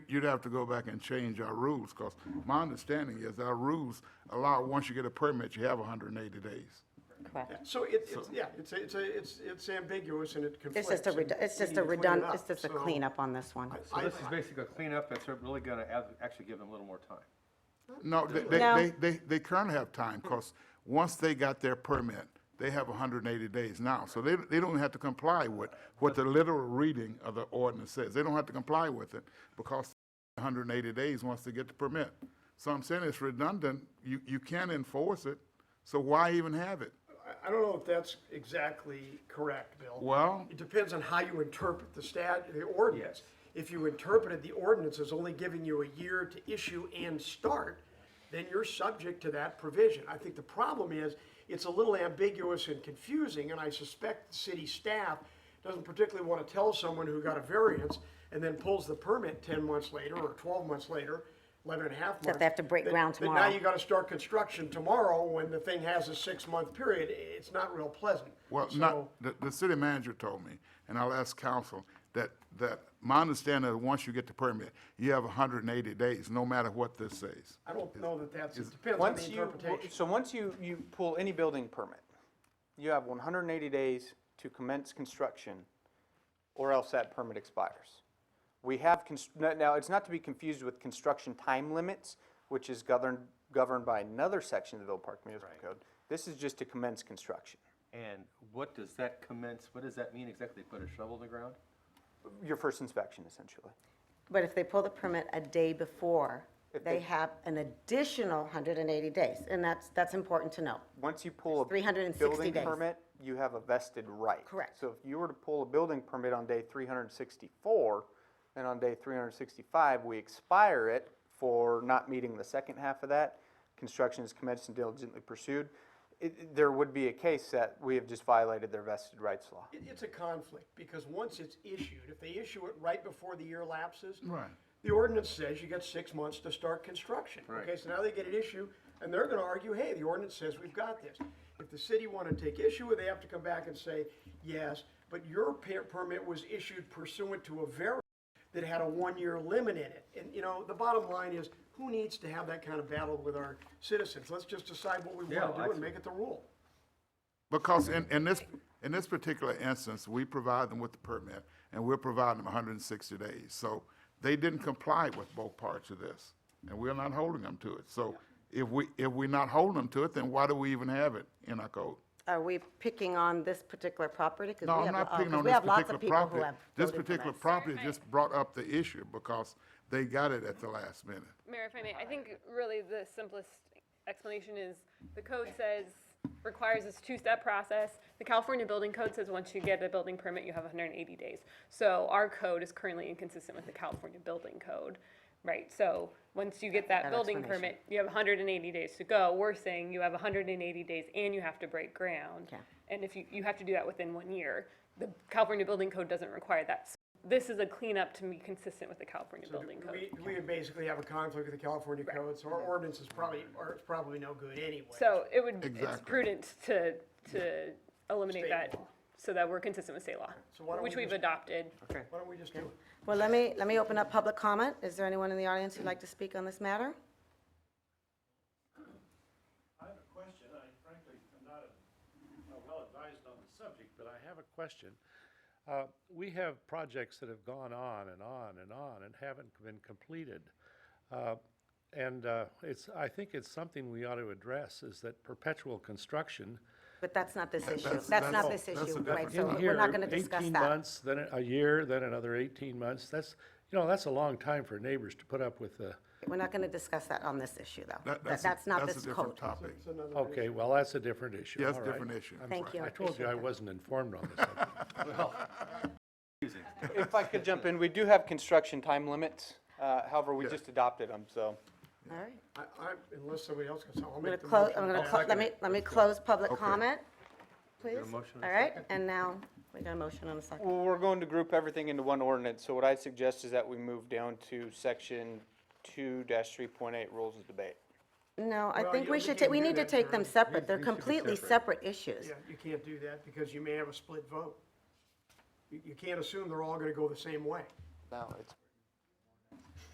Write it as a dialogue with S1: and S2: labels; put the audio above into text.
S1: you'd have to go back and change our rules, because my understanding is our rules allow, once you get a permit, you have hundred and eighty days.
S2: correct.
S3: So it, it's, yeah, it's, a- it's, a- it's, it's ambiguous and it
S2: It's
S3: conflicts.
S2: just a,
S3: and
S2: redu- it's
S3: we
S2: just
S3: need
S2: a
S3: to clean it
S2: redund,
S3: up.
S2: it's just a
S3: So
S2: cleanup on this one.
S3: I-
S4: So this is basically a cleanup that's really gonna add- actually give them a little more time.
S1: No, they, they,
S2: No.
S1: they, they, they currently have time, because once they got their permit, they have hundred and eighty days now. So they, they don't have to comply with what the literal reading of the ordinance says. They don't have to comply with it, because hundred and eighty days once they get the permit. So I'm saying it's redundant, you, you can enforce it, so why even have it?
S3: I, I don't know if that's exactly correct, Bill.
S1: Well-
S3: It depends on how you interpret the stat, the ordinance. If you interpreted the ordinance as only giving you a year to issue and start, then you're subject to that provision. I think the problem is, it's a little ambiguous and confusing, and I suspect the city staff doesn't particularly want to tell someone who got a variance and then pulls the permit ten months later, or twelve months later, eleven and a half months.
S2: they have to break ground
S3: that now
S2: tomorrow.
S3: you you gotta start construction tomorrow when the thing has a six-month period, it's not real pleasant.
S1: Well,
S3: So-
S1: not, the, the city manager told me, and I'll ask council, that, that my understanding is once you get the permit, you have hundred and eighty days, no matter what this says.
S3: I don't know that that's, it depends on the
S5: Once you,
S3: interpretation.
S5: so once you, you pull any building permit, you have one hundred and eighty days to commence construction, or else that permit expires. We have, cons- now- now, it's not to be confused with construction time limits, which is governed, governed by another section of the Villa Park Municipal Code. This is just to commence construction.
S4: And what does that commence, what does that mean exactly? Put a shovel in the ground?
S5: Your first inspection, essentially.
S2: But if they pull the permit a day before, they
S5: they-
S2: have an additional 180 days, and that's, that's important to know.
S5: Once you pull a
S2: 360
S5: building
S2: days.
S5: permit, you have a vested right.
S2: Correct.
S5: So if you were to pull a building permit on day 364, and on day 365, we expire it for not meeting the second half of that, construction is commenced and diligently pursued, it- it- there would be a case that we have just violated their vested rights law.
S3: It- It's a conflict, because once it's issued, if they issue it right before the year lapses.
S1: Right.
S3: The ordinance says you get six months to start construction. Okay, so now they get an issue, and they're gonna argue, hey, the ordinance says we've got this. If the city wanna take issue with, it, they have to come back and say, yes, but your per- permit was issued pursuant to a variance that had a one-year limit in it. And, you know, the bottom line is, who needs to have that kind of battle with our citizens? Let's just decide what we wanna
S4: Yeah,
S3: do and
S4: I-
S3: make it the rule.
S1: Because in, in this, in this particular instance, we provide them with the permit, and we're providing them hundred and sixty days. So they didn't comply with both parts of this, and we're not holding them to it. So if we, if we're not holding them to it, then why do we even have it in our code?
S2: Are we picking on this particular property? 'Cause
S1: No,
S2: we
S1: I'm
S2: have-
S1: not
S2: oh,
S1: picking
S2: 'cause
S1: on
S2: we
S1: this
S2: have lots of
S1: particular
S2: people who
S1: property.
S2: have
S1: This
S2: voted for
S1: particular
S2: this.
S1: property just brought up the issue because they got it at the last minute.
S6: Mayor, if I may, I think really the simplest explanation is the code says, requires this two-step process. The California Building Code says once you get a building permit, you have 180 days. So our code is currently inconsistent with the California Building Code, right? So once you get that building permit, you have 180 days to go. We're saying you have 180 days and you have to break ground.
S2: Yeah.
S6: And if you, you have to do that within one year. The California Building Code doesn't require that. So This is a cleanup to be consistent with the California Building Code.
S3: We, we would basically have a conflict with the California code, so our ordinance is probably, or it's probably no good anyway.
S6: So it would, it's
S1: Exactly.
S6: prudent to, to eliminate
S3: State
S6: that,
S3: law.
S6: so that we're consistent with state law,
S3: So why don't
S6: which
S3: we
S6: we've
S3: just-
S6: adopted.
S3: Why don't we just do it?
S2: Well, let me, let me open up public comment. Is there anyone in the audience who'd like to speak on this matter?
S7: I have a question. I frankly am not a- uh, well advised on the subject, but I have a question. Uh, We have projects that have gone on and on and on and haven't been completed. Uh, And uh, it's, I think it's something we ought to address, is that perpetual construction.
S2: But that's not this issue.
S1: that's-
S2: That's not
S1: that's-
S2: this
S1: that's a
S2: issue, right? So
S7: in
S2: we're not
S7: here,
S2: going to discuss
S7: 18
S2: that.
S7: months, then a year, then another 18 months. That's, you know, that's a long time for neighbors to put up with the,
S2: We're not going to discuss that on this issue, though.
S1: That-
S2: That-
S1: a-
S2: That's not
S1: that's a
S2: this
S1: different
S2: code.
S1: topic.
S7: okay, well, that's a different issue.
S1: Yes,
S7: All right.
S1: different issue.
S7: I'm
S2: Thank
S7: sorry.
S2: you, I
S7: I told you
S2: appreciate
S7: I
S2: that.
S7: wasn't informed on this. subject.
S5: If I could jump in, we do have construction time limits, uh, however, we
S1: Yeah.
S5: just adopted them, so.
S2: All right.
S3: I, I, unless somebody else can, I'll
S2: I'm going
S3: make
S2: to
S3: the
S2: close,
S3: motion.
S2: I'm going to, let me, let me close public comment, please.
S4: motion and a
S2: All right, and now, we got a motion and a second.
S5: Well, we're going to group everything into one ordinance, so what I suggest is that we move down to section two three point eight, rules of debate.
S2: No, I
S3: Well,
S2: think
S3: yeah,
S2: we
S3: we
S2: should, ta-
S3: can
S2: we
S3: do
S2: need to
S3: that,
S2: take them
S3: Karen.
S2: separate, they're completely separate issues.
S3: Yeah, you can't do that because you may have a split vote. You, you can't assume they're all gonna go the same way.
S5: No, it's